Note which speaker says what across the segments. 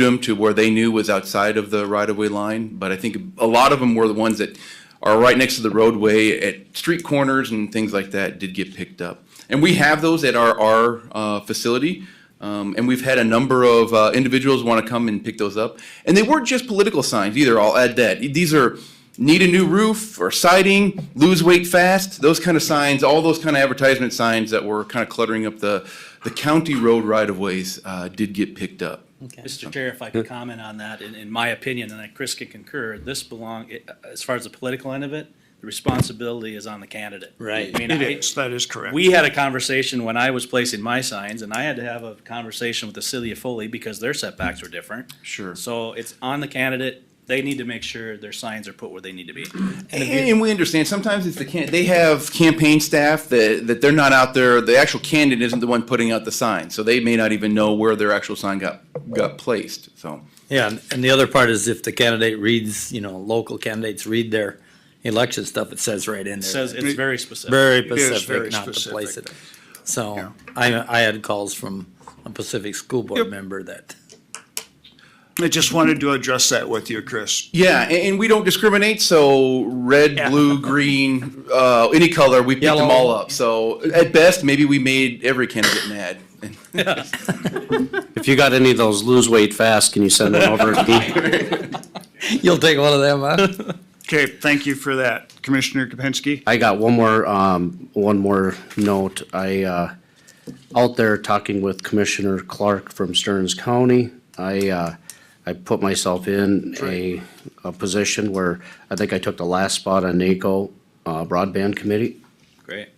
Speaker 1: them to where they knew was outside of the right-of-way line, but I think a lot of them were the ones that are right next to the roadway at street corners and things like that did get picked up. And we have those at our, our, uh, facility. Um, and we've had a number of, uh, individuals want to come and pick those up. And they weren't just political signs either, I'll add that. These are need a new roof or siding, lose weight fast, those kind of signs, all those kind of advertisement signs that were kind of cluttering up the, the county road right-of-ways, uh, did get picked up.
Speaker 2: Mr. Chair, if I could comment on that, in, in my opinion, and I- Chris can concur, this belong, uh, as far as the political end of it, the responsibility is on the candidate.
Speaker 3: Right.
Speaker 2: I mean,
Speaker 4: It
Speaker 2: I-
Speaker 4: is, that is correct.
Speaker 2: We had a conversation when I was placing my signs, and I had to have a conversation with the city of Foley because their setbacks were different.
Speaker 1: Sure.
Speaker 2: So it's on the candidate, they need to make sure their signs are put where they need to be.
Speaker 1: And, and we understand sometimes it's the can, they have campaign staff that, that they're not out there, the actual candidate isn't the one putting out the sign, so they may not even know where their actual sign got, got placed, so.
Speaker 3: Yeah, and- and the other part is if the candidate reads, you know, local candidates read their election stuff, it says right in
Speaker 2: It
Speaker 3: there.
Speaker 2: says it's very specific.
Speaker 3: Very
Speaker 4: is very
Speaker 3: Pacific, not to place
Speaker 4: specific.
Speaker 3: it. So I, I had calls from a Pacific School Board member that,
Speaker 4: I just wanted to address that with you, Chris.
Speaker 1: Yeah, and, and we don't discriminate, so red, blue, green, uh, any color, we picked them
Speaker 3: Yellow.
Speaker 1: all up. So at best, maybe we made every candidate mad.
Speaker 5: If you got any of those lose weight fast, can you send them over to me?
Speaker 3: you'll take one of them, huh?
Speaker 4: Okay, thank you for that, Commissioner Kapinski.
Speaker 5: I got one more, um, one more note. I, uh, out there talking with Commissioner Clark from Stearns County, I, uh, I put myself in a, a position where I think I took the last spot on NACO uh, broadband committee.
Speaker 2: Great.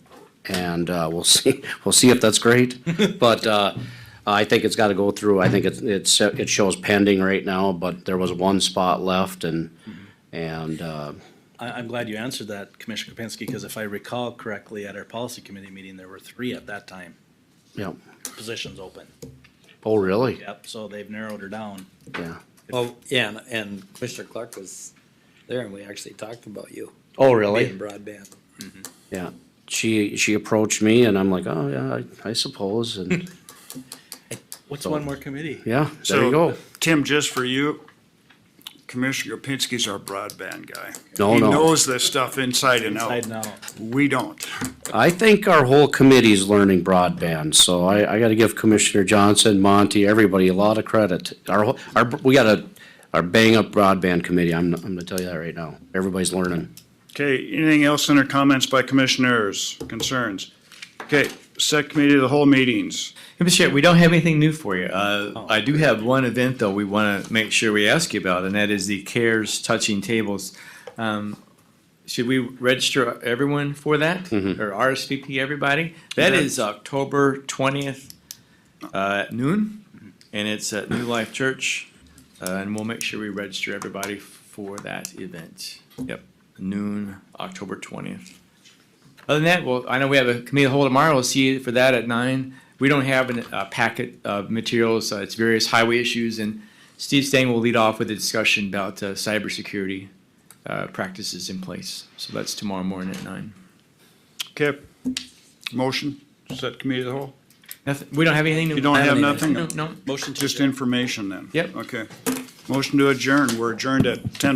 Speaker 5: and uh, we'll see. We'll see if that's great. but uh, I think it's got to go through. I think it's it's it shows pending right now, but there was one spot left, and and uh,
Speaker 2: I, I'm glad you answered that, Commissioner Kapinski, because if I recall correctly, at our policy committee meeting, there were three at that time,
Speaker 5: yeah.
Speaker 2: positions open.
Speaker 5: Oh, really?
Speaker 2: Yep, so they've narrowed her down.
Speaker 5: Yeah.
Speaker 3: Well, yeah, and, and Commissioner Clark was there and we actually talked about you
Speaker 5: Oh,
Speaker 3: being
Speaker 5: really?
Speaker 3: broadband.
Speaker 5: Yeah. She she approached me, and I'm like, oh yeah, I, I suppose, and
Speaker 2: What's one more committee?
Speaker 5: yeah, there
Speaker 4: So,
Speaker 5: you go.
Speaker 4: Tim, just for you, Commissioner Kapinski's our broadband guy.
Speaker 5: No,
Speaker 4: He
Speaker 5: no.
Speaker 4: knows this stuff inside and
Speaker 2: I
Speaker 4: out.
Speaker 2: know.
Speaker 4: We don't.
Speaker 5: I think our whole committee is learning broadband, so I, I gotta give Commissioner Johnson, Monty, everybody a lot of credit. Our, whole- our, we got a, our bang-up broadband committee, I'm, I'm gonna tell you that right now. Everybody's learning.
Speaker 4: Okay, anything else in our comments by commissioners, concerns? Okay, set committee of the whole meetings.
Speaker 6: Hey, Mr. Chair, we don't have anything new for you. Uh, I do have one event, though, we want to make sure we ask you about, and that is the CARES Touching Tables. Um, Should we register everyone for that? Or RSVP everybody? That is October twentieth uh, at noon, and it's at New Life Church. uh, And we'll make sure we register everybody for that event. Yep, noon, October twentieth. Other than that, well, I know we have a committee of the whole tomorrow. We'll see you for that at nine. We don't have an- a packet of materials. Uh, It's various highway issues, and Steve Stang will lead off with a discussion about uh, cybersecurity uh, practices in place. So that's tomorrow morning at nine.
Speaker 4: Okay, motion, set committee of the whole,
Speaker 6: Nothing, we don't have anything. to-
Speaker 4: You don't
Speaker 6: I
Speaker 4: have
Speaker 6: need it.
Speaker 4: nothing?
Speaker 6: No, no.
Speaker 2: Motion to
Speaker 4: just
Speaker 2: adjourn.
Speaker 4: information then.
Speaker 6: Yep.
Speaker 4: Okay, motion to adjourn, we're adjourned at ten